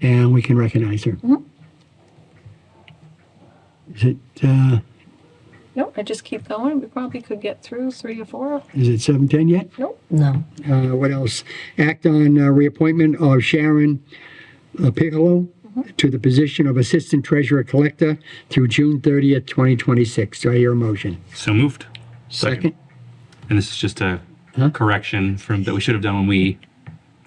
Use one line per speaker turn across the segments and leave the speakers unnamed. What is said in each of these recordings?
and we can recognize her.
Mhm.
Is it, uh,
No, I just keep going. We probably could get through three or four.
is it 7:10 yet?
Nope.
No.
Uh, what else? Act on uh, reappointment of Sharon uh, Piccolo to the position of Assistant Treasurer Collector through June 30th, 2026. Do I hear a motion?
So moved.
Second.
And this is just a
Huh?
correction from that we should have done when we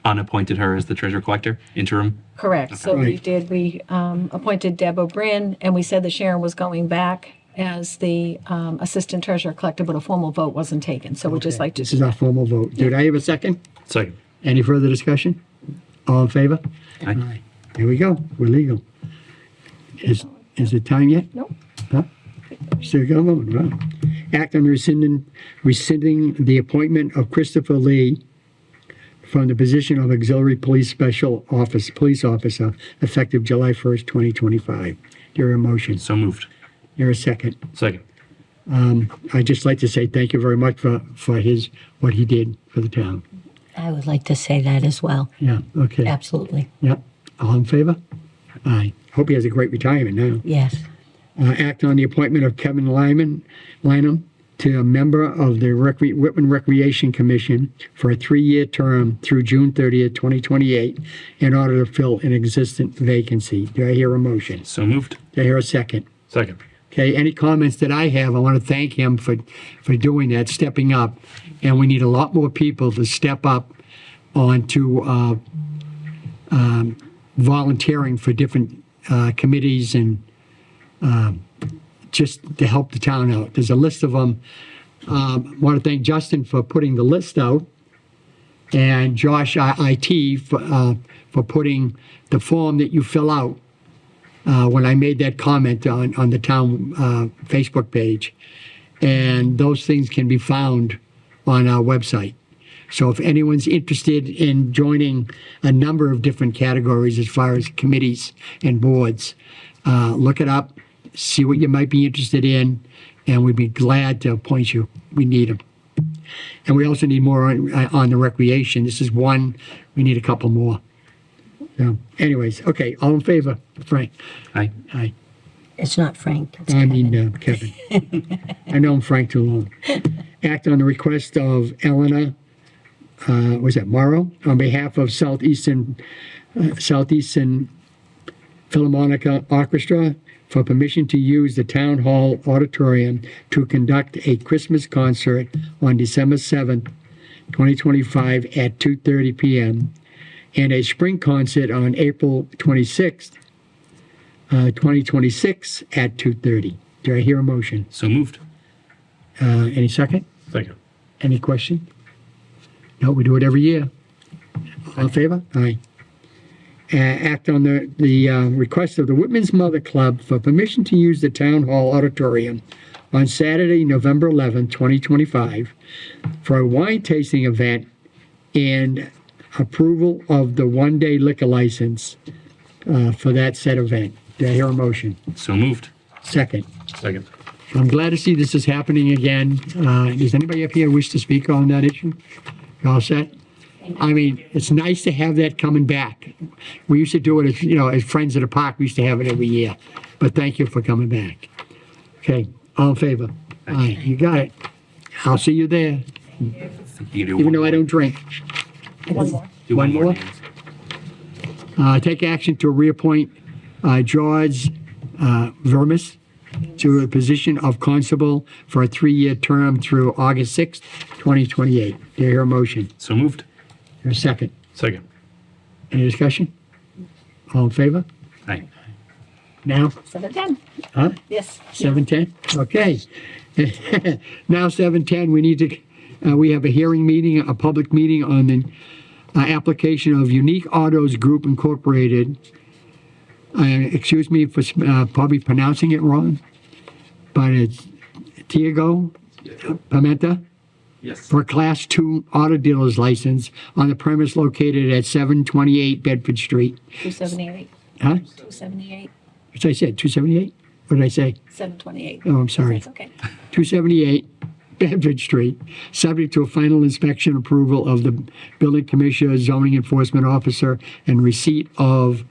unappointed her as the treasurer collector interim.
Correct. So we
Right.
did, we um, appointed Deb O'Brien, and we said that Sharon was going back as the um, Assistant Treasurer Collector, but a formal vote wasn't taken. So we'd just like
This
to,
is our formal vote. Did I have a second?
Second.
Any further discussion? All in favor?
Aye.
Here we go. We're legal. Is, is it time yet?
nope.
Huh? Still got a moment, wow. Act on rescinding, rescinding the appointment of Christopher Lee from the position of auxiliary police special office, police officer, effective July 1st, 2025. There are motions.
So moved.
There a second.
Second.
I'd just like to say thank you very much for, for his, what he did for the town.
I would like to say that as well.
Yeah, okay.
Absolutely.
Yeah. All in favor? Aye. Hope he has a great retirement now.
Yes.
uh, act on the appointment of Kevin Lyman, Lynham to a member of the Recre- Whitman Recreation Commission for a three-year term through June 30th, 2028, in order to fill an existent vacancy. Do I hear a motion?
So moved.
Do I hear a second?
Second.
Okay, any comments that I have, I want to thank him for, for doing that, stepping up. And we need a lot more people to step up onto uh, um, volunteering for different uh, committees and um, just to help the town out. There's a list of them. Um, Want to thank Justin for putting the list out and Josh I- IT for, uh, for putting the form that you fill out uh, when I made that comment on, on the town uh, Facebook page. And those things can be found on our website. So if anyone's interested in joining a number of different categories as far as committees and boards, uh, look it up, see what you might be interested in, and we'd be glad to appoint you. We need them. And we also need more on, uh, on the recreation. This is one, we need a couple more. So anyways, okay, all in favor, Frank?
Aye.
Aye.
It's not Frank. It's
I
Kevin.
mean, uh, Kevin. I know I'm Frank too long. Act on the request of Elena, uh, was that Morrow? On behalf of Southeastern, uh, Southeastern Philharmonic Orchestra for permission to use the Town Hall Auditorium to conduct a Christmas concert on December 7th, 2025 at 2:30 PM and a spring concert on April 26th uh, 2026 at 2:30. Do I hear a motion?
So moved.
Uh, Any second?
Second.
Any question? No, we do it every year. All in favor? Aye. Uh, Act on the, the uh, request of the Whitman's Mother Club for permission to use the Town Hall Auditorium on Saturday, November 11, 2025, for a wine tasting event and approval of the one-day liquor license uh, for that said event. Do I hear a motion?
So moved.
Second.
Second.
I'm glad to see this is happening again. Uh, Does anybody up here wish to speak on that issue? You All set? I mean, it's nice to have that coming back. We used to do it, as you know, as Friends of the Park, we used to have it every year. But thank you for coming back. Okay, all in favor? Aye, you got it. I'll see you there,
You do
even
one
though I
more.
don't drink.
One more.
Do one
One
more.
more? Uh, Take action to reappoint uh, George uh, Vermis to a position of constable for a three-year term through August 6th, 2028. Do I hear a motion? Is
So moved.
there a second?
Second.
Any discussion? All in favor?
Aye.
Now?
Seven, ten.
Huh?
Yes.
Seven ten, okay. Now seven ten, we need to, uh, we have a hearing meeting, a public meeting on the uh, application of Unique Autos Group Incorporated. Uh, excuse me for uh, probably pronouncing it wrong, but it's Tiago Pimenta
Yes.
for a Class Two Auto Dealer's License on the premise located at seven twenty-eight Bedford Street.
Two seventy-eight,
Huh?
two seventy-eight,
Which I said, two seventy-eight? What did I say?
seven twenty-eight.
Oh, I'm sorry.
That's okay.
278 Bedford Street, subject to a final inspection approval of the building commissioner, zoning enforcement officer, and receipt of